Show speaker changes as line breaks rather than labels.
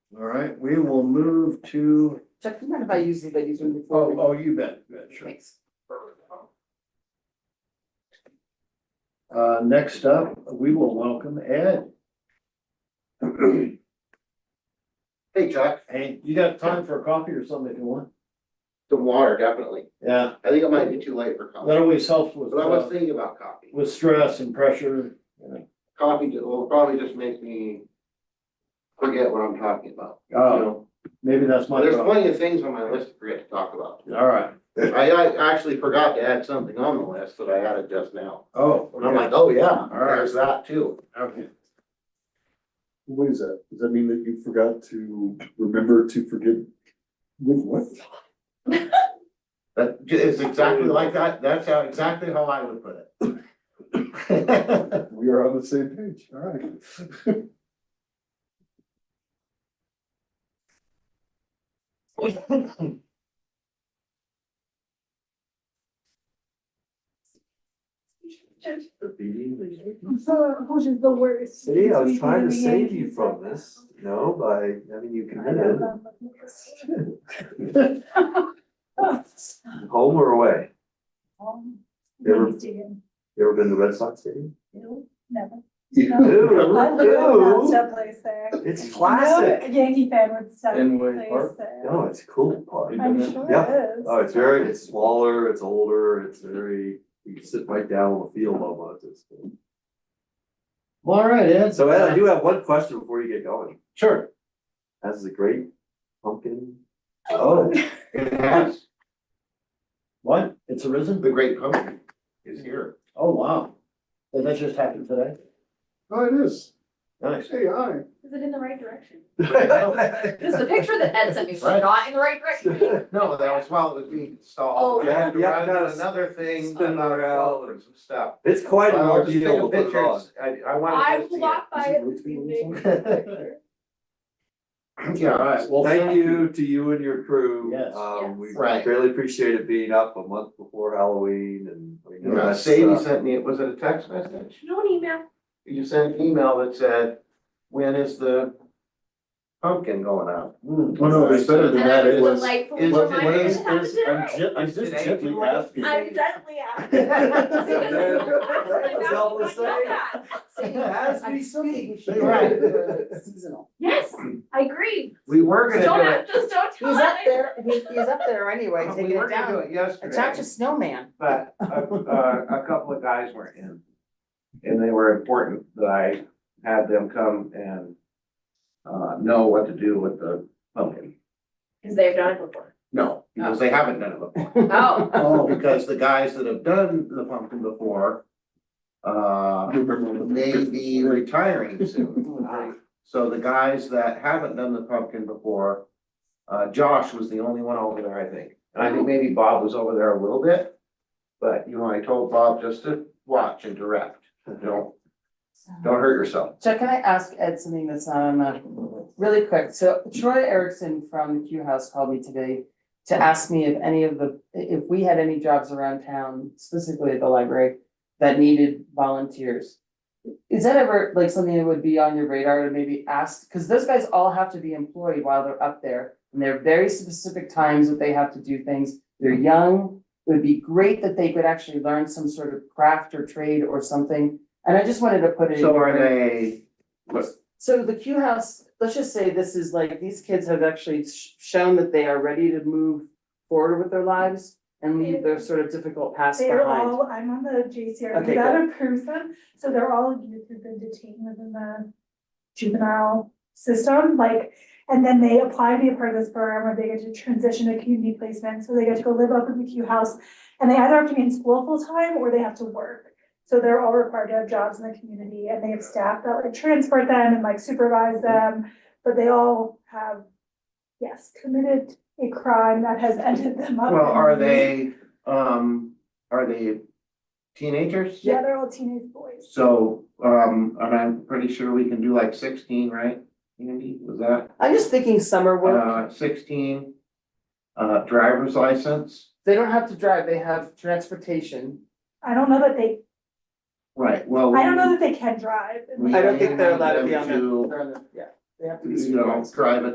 All right, we will move to,
Chuck, do you mind if I use these, I use them before?
oh, oh, you bet, you bet, sure.
Thanks.
Uh, next up, we will welcome Ed.
Hey, Chuck,
Hey, you got time for a coffee or something if you want?
some water, definitely.
Yeah,
I think it might be too late for
that
coffee.
always helps with,
But I was
uh,
thinking about coffee.
with stress and pressure.
Coffee ju- will probably just make me forget what I'm talking about. you
Oh,
know?
maybe that's my
There's
problem.
plenty of things on my list to forget to talk about.
All right,
I, I actually forgot to add something on the list that I added just now.
oh,
And I'm
okay.
like, oh, yeah,
right.
there's that too.
okay.
What is that? Does that mean that you forgot to remember to forget? What?
That j- is exactly like that. That's how, exactly how I would put it.
We are on the same page, all right.
So, who's the worst?
See, I was trying to save you from this, you know, by having you committed, home or away. You ever, you ever been to Red Sox Stadium?
Never.
Ew, ew,
place there.
it's classic.
Yankee fan would stop
Fenway
place
Park?
there.
No, it's a cool park.
I'm sure
Yeah.
it is.
Oh, it's very, it's smaller, it's older, it's very, you can sit right down on the field almost. It's cool.
All right, Ed.
So Ed, I do have one question before you get going.
Sure.
Has the great pumpkin,
Oh,
It has,
what? It's arisen?
the great company is here.
Oh, wow. And that just happened today?
Oh, it is.
Nice.
Hey, hi.
Is it in the right direction?
This
This is the picture that Ed sent me, was not in the right direction.
No, that was while it was being installed.
Oh.
I had to
Yeah,
run
yeah, it's-
another thing,
spin
another
around.
and some stuff.
it's quite an
Well, I'll just take
ordeal
a
to put it
picture.
on.
I, I
I
wanted to see it.
walked by it this evening.
Yeah, all right.
Well,
Thank you to you and your crew.
Yes.
Um, we
Yes.
Right.
really appreciate it being up a month before Halloween and we know
Yeah,
that's,
Sadie
uh,
sent me, was it a text message?
No email.
You sent an email that said, when is the pumpkin going out?
Mm.
Oh, no, it's better than
And I
that. It
was
was.
delightly
is-
reminded
is-
it happened today.
I'm
Is today too
asking.
I'm definitely out.
That's helpless saying. As we speak.
Right.
Seasonal.
Yes, I agree.
We were
Don't,
gonna do it.
have- just don't tell
He's up
Ed.
there, he, he's up there anyway,
We
taking
were
it
gonna do
down.
it
It's
yesterday,
not just snowman.
but a, uh, a couple of guys were in. And they were important that I had them come and uh, know what to do with the pumpkin.
Cause they've done it before.
No, because they haven't done it before.
Oh,
Oh, because the guys that have done the pumpkin before, uh, may be retiring soon. So the guys that haven't done the pumpkin before, uh, Josh was the only one over there, I think. And I think maybe Bob was over there a little bit. But, you know, I told Bob just to watch and direct, don't, don't hurt yourself.
Chuck, can I ask Ed something that's not on that? Really quick, so Troy Erickson from the Q House called me today to ask me if any of the, if we had any jobs around town, specifically at the library, that needed volunteers. Is that ever like something that would be on your radar to maybe ask, because those guys all have to be employed while they're up there. And there are very specific times that they have to do things, they're young, it would be great that they could actually learn some sort of craft or trade or something. And I just wanted to put it. in
So are
your-
they,
so the Q House, let's just say this is like, these kids have actually sh- shown that they are ready to move forward with their lives and leave their sort of difficult past
They're
behind.
all, I'm on the JCR,
Okay,
that approves them, so they're all youth who've been detained within the juvenile system, like, and then they apply to be a part of this program where they get to transition to community placement, so they get to go live up in the Q house. And they either have to be in school full-time or they have to work. So they're all required to have jobs in the community and they have staff that like transport them and like supervise them, but they all have, yes, committed a crime that has ended them up.
well, are
in-
they, um, are they teenagers?
Yeah, they're all teenage boys.
So, um, and I'm pretty sure we can do like sixteen, right? Andy, was that,
I'm just thinking summer work,
uh, sixteen? Uh, driver's license,
they don't have to drive, they have transportation.
I don't know that they,
right, well.
I don't know that they can drive.
we-
I don't think they're allowed to
we
be on
need them
They're on the- Yeah, they have to
to,
be
You know,
supervised.
drive a